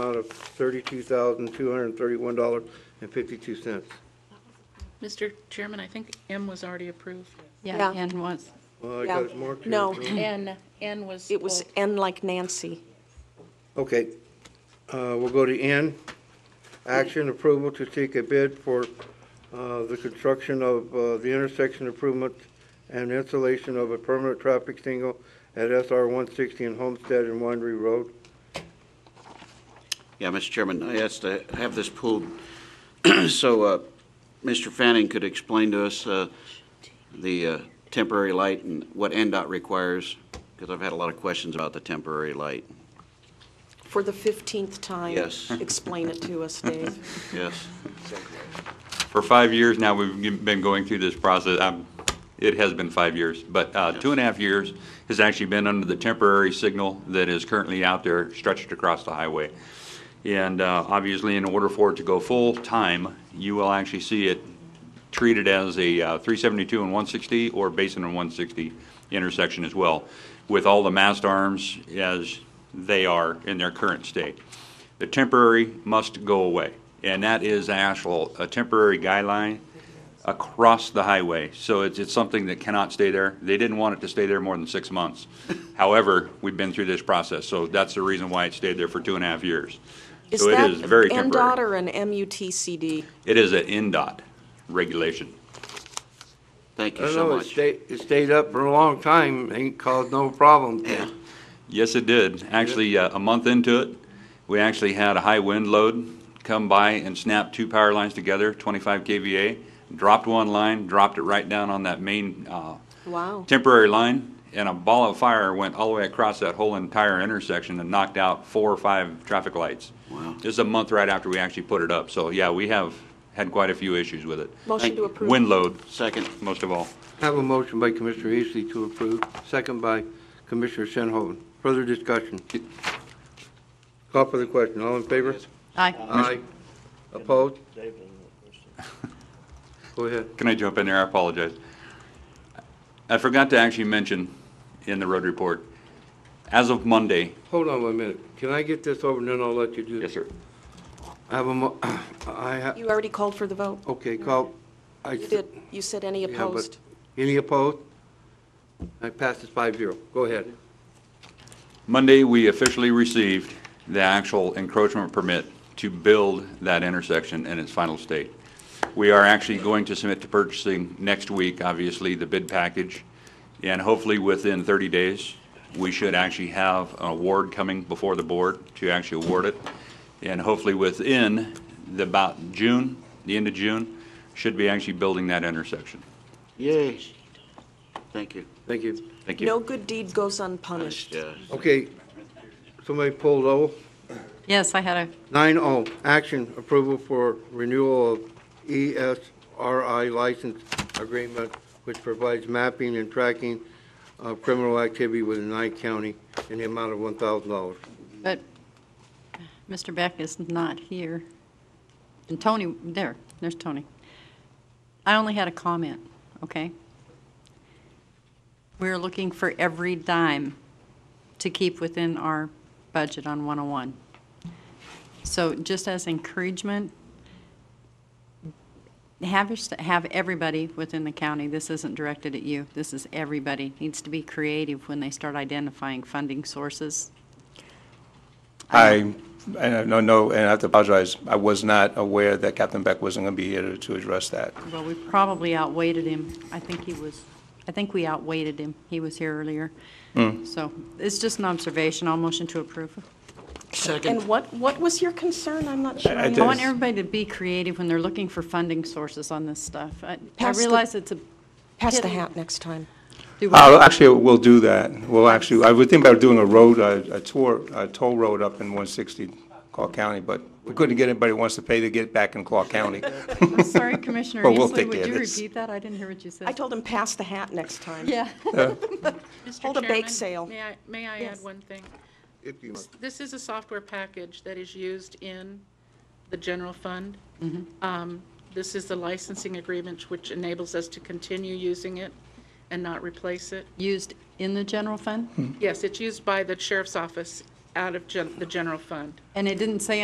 amount of thirty-two thousand, two hundred and thirty-one dollars and fifty-two cents. Mr. Chairman, I think M was already approved. Yeah. Yeah, and was, Well, I got it Yeah. marked here. No. so- N, N was. It was pulled. N like Nancy. Okay, uh, we'll go to N. Action approval to seek a bid for, uh, the construction of, uh, the intersection improvement and installation of a permanent traffic signal at SR one sixty and Homestead and Winery Road. Yeah, Mr. Chairman, I asked to have this pulled so uh, Mr. Fanning could explain to us uh, the uh, temporary light and what NDOT requires, because I've had a lot of questions about the temporary light. For the 15th time. Yes. Explain it to us, Dave. Yes. For five years now, we've g- been going through this process. Um, It has been five years, but uh, two and a half years has actually been under the temporary signal that is currently out there stretched across the highway. And uh, obviously, in order for it to go full-time, you will actually see it treated as a uh, 372 and 160 or Basin and 160 intersection as well, with all the mast arms as they are in their current state. The temporary must go away, and that is actual, a temporary guideline across the highway. So it's, it's something that cannot stay there. They didn't want it to stay there more than six months. However, we've been through this process, so that's the reason why it stayed there for two and a half years. So it is very Is that NDOT temporary. or an MUTCD? It is an NDOT regulation. Thank I you don't so know, it much. stayed, it stayed up for a long time, ain't caused no problem. Yeah. Yes, it did. Actually, uh, a month into it, we actually had a high wind load come by and snap two power lines together, 25 KVA, dropped one line, dropped it right down on that main uh, Wow. temporary line, and a ball of fire went all the way across that whole entire intersection and knocked out four or five traffic lights. Wow. This is a month right after we actually put it up. So, yeah, we have had quite a few issues with it. Motion Thank to you. approve. Wind load, Second, most of all. I Have a motion by Commissioner Eastley to approve, second by Commissioner Shinholz. Further discussion? Call for the question, all in favor? aye, Aye. Opposed? Go ahead. Can I jump in there? I apologize. I forgot to actually mention in the road report, as of Monday. Hold on one minute. Can I get this over and then I'll let you do? sir. I have a mo, I have, You already called for the vote. okay, call. I You did. You said any Yeah, but- opposed. Any opposed? I pass it five zero. Go ahead. Monday, we officially received the actual encroachment permit to build that intersection in its final state. We are actually going to submit to purchasing next week, obviously, the bid package. And hopefully, within 30 days, we should actually have an award coming before the board to actually award it. And hopefully, within the, about June, the end of June, should be actually building that intersection. yay. Thank you. Thank you. Thank you. No good deed goes unpunished. Yeah. Okay, somebody pulled O. yes, I had a, Nine O, action approval for renewal of E ESRI license agreement, which provides mapping and tracking of criminal activity within Nye County in the amount of one thousand dollars. but Mr. Beck is not here. And Tony, there, there's Tony. I only had a comment, okay? We're looking for every dime to keep within our budget on 101. So just as encouragement, have your, st- have everybody within the county, this isn't directed at you, this is everybody, needs to be creative when they start identifying funding sources. I, uh, no, no, and I have to apologize. I was not aware that Captain Beck wasn't going to be here to- to address that. Well, we probably outweighted him. I think he was, I think we outweighted him. He was here earlier. Hmm. So it's just an observation. I'll motion to approve. And what, what was your concern? I'm not sure. I I want Yes. everybody to be creative when they're looking for funding sources on this stuff. I- I Pass the- realize it's a. Pass the hidden- hat next time. Do what? Uh, Actually, we'll do that. We'll actually, I would think about doing a road, uh, a tour, a toll road up in 160 Clark County, but we couldn't get anybody who wants to pay to get back in Clark County. I'm sorry, Commissioner Well, we'll Easley, take would care of you this. repeat that? I didn't hear what you said. I told him, pass the hat next time. Yeah. Mr. Hold a bake Chairman, sale. May I, may I add Yes. one thing? If you must. This is a software package that is used in the general fund. Mm-hmm. Um, This is the licensing agreement which enables us to continue using it and not replace it. Used in the general fund? Hmm. Yes, it's used by the sheriff's office out of gen- the general fund. And it didn't say